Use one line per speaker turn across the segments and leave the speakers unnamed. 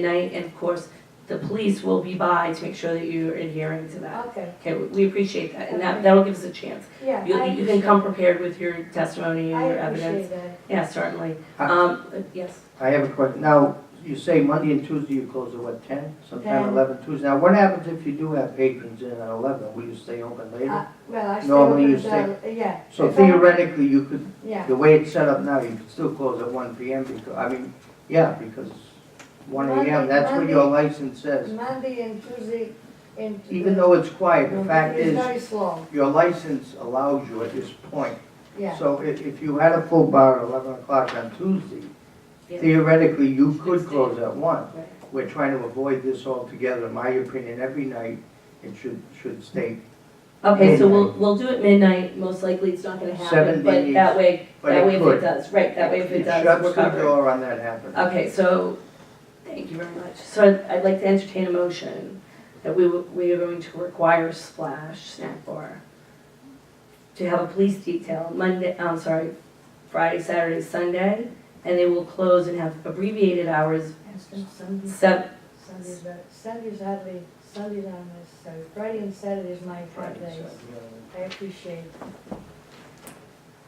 night, and of course, the police will be by to make sure that you're adhering to that.
Okay,
Okay, we- we appreciate that, and that, that'll give us a chance.
yeah,
You,
I,
you can come prepared with your testimony and
I
your
appreciate
evidence.
that.
Yeah, certainly.
I-
Um, uh, yes,
I have a question. Now, you say Monday and Tuesday you close at what, ten? Sometime
10.
eleven Tuesday. Now, what happens if you do have patrons in at eleven? Will you stay open later?
Uh, Well, I still
Normally you
open the, yeah,
So
if I-
theoretically, you could,
yeah,
the way it's set up now, you could still close at one PM because, I mean, yeah, because one AM,
Monday-
that's what your license says.
Monday and Tuesday and.
Even though it's quiet, the
It's
fact is,
very slow,
your license allows you at this point.
yeah.
So if, if you had a full bar at eleven o'clock on Tuesday,
Yeah.
theoretically, you could
Tuesday.
close at one.
Right.
We're trying to avoid this altogether, in my opinion, every night, it should, should stay,
okay, so we'll, we'll do it midnight, most likely it's not gonna happen,
Seven
but
days.
that way,
but
that way
it
if it
could.
does, right, that way if it does, we're
shuts the
covered.
door on that happening.
Okay, so, thank you very much. So I'd- I'd like to entertain a motion that we, will- we are going to require Splash Snack Bar to have a police detail Monday, I'm sorry, Friday, Saturday, Sunday, and they will close and have abbreviated hours,
And so Sunday-
seven,
Sunday's, uh, Sunday's hardly, Sunday's not necessary, Friday and Saturday is my
Right,
front days,
so, yeah.
I appreciate.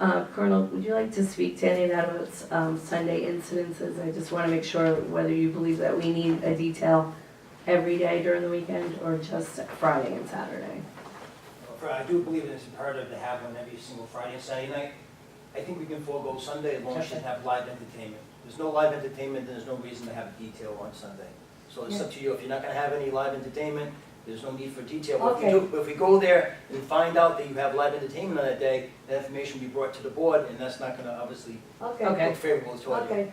uh, Colonel, would you like to speak to any of that about, um, Sunday incidences? I just wanna make sure whether you believe that we need a detail every day during the weekend or just Friday and Saturday.
For- I do believe it's imperative to have one every single Friday and Saturday night. I think we can forego Sunday as long as you have live entertainment. There's no live entertainment, there's no reason to have detail on Sunday. So it's up to you, if you're not gonna have any live entertainment, there's no need for detail. But if you do- If we go there and find out that you have live entertainment on that day, that information will be brought to the board, and that's not gonna obviously
Okay,
Okay.
look favorable to you.
okay,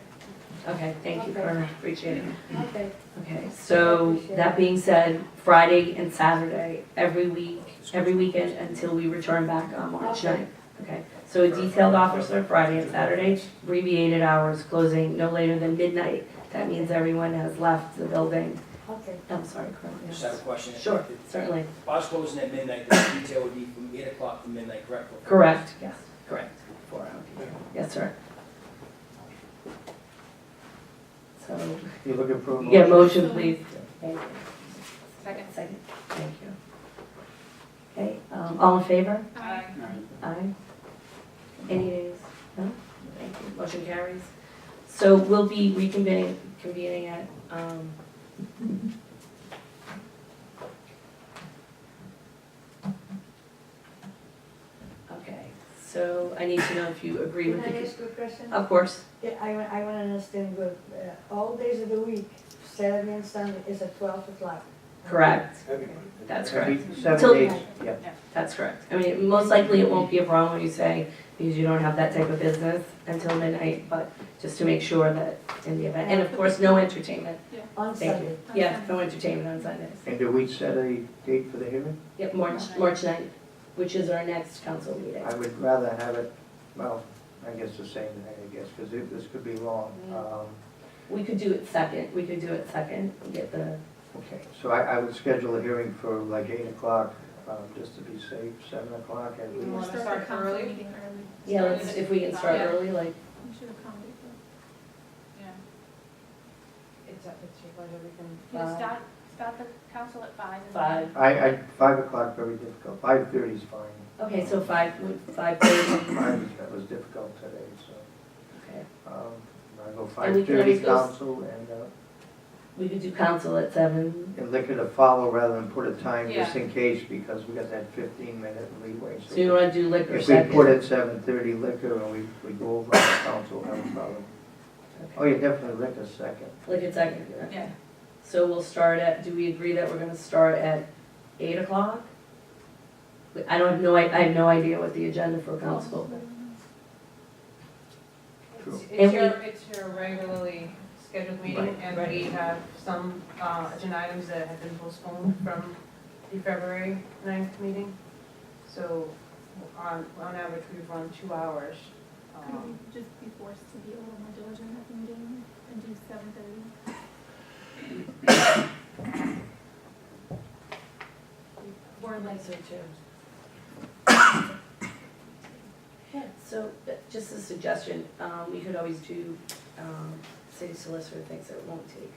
Okay, thank you,
Okay.
Colonel, appreciate it.
okay,
Okay, so that being said, Friday and Saturday, every week, every weekend until we return back on March
Okay.
9th. Okay, so a detailed officer Friday and Saturday, abbreviated hours, closing no later than midnight. That means everyone has left the building.
okay.
I'm sorry, Colonel.
Just have a
yes.
question.
Sure, certainly.
Bar's closing at midnight, the detail would be from eight o'clock to midnight, correct?
Correct, yes, correct. Four hours. Yes, sir. So,
You're looking for a motion?
yeah, motion, please. Thank you.
Second.
Second, thank you. Okay, um, all in favor?
Aye.
Aye. Any nays? No? Thank you, motion carries. So we'll be reconvening, convening at, um, okay, so I need to know if you agree
Can
with
I
the,
ask you a question?
of course,
Yeah, I, wa- I wanna understand good, uh, all days of the week, Saturday and Sunday is at twelve o'clock.
correct,
Everybody.
That's
Every
Till-
Seven days, yeah.
that's correct. I mean, most likely it won't be a problem when you say, because you don't have that type of business until midnight, but just to make sure that in the event, and of course, no entertainment
On
Thank
Sunday.
you. Yeah, no entertainment on Sundays.
And do we set a date for the hearing?
Yep, March, March 9th, which is our next council meeting.
I would rather have it, well, I guess the same night, I guess, because this could be long.
Mm.
Um,
We could do it second, we could do it second, and get the,
Okay, so I, I would schedule a hearing for like eight o'clock, um, just to be safe, seven o'clock at
We
least.
want to start early.
yeah, let's, if we can start
Yeah.
early, like,
We should accommodate that. Yeah.
It's up, it's your pleasure, we can,
You
Five.
start, start the council at five. and
Five.
I, I, five o'clock, very difficult, five thirty is fine.
okay, so 5, 5:30,
Five, is- that was difficult today, so,
okay.
um, I go
And we
five
can
thirty
always go s-
council and, uh,
We could do council at 7,
and liquor to follow rather than put a time just
Yeah.
in case, because we got that fifteen minute leeway.
so you want to do liquor
If we
second?
put it seven thirty liquor and we, we go over on council, have a problem. Oh,
Okay.
yeah, definitely liquor second.
Liquor second,
then- Yeah,
so we'll start at, do we agree that we're going to start at 8 o'clock? I don't have no, I I have no idea what the agenda for council.
True.
it's,
And
it's your, it's your regularly scheduled meeting,
Right,
and we have some, uh, agenda items that have been postponed from the February ninth meeting. So, on, on average, we've run two hours,
Could
um,
we just be forced to be a little more diligent at the meeting and do seven thirty?
Board lights are too.
Yeah, so uh, just a suggestion, um, we could always do, um, city solicitor thinks it won't take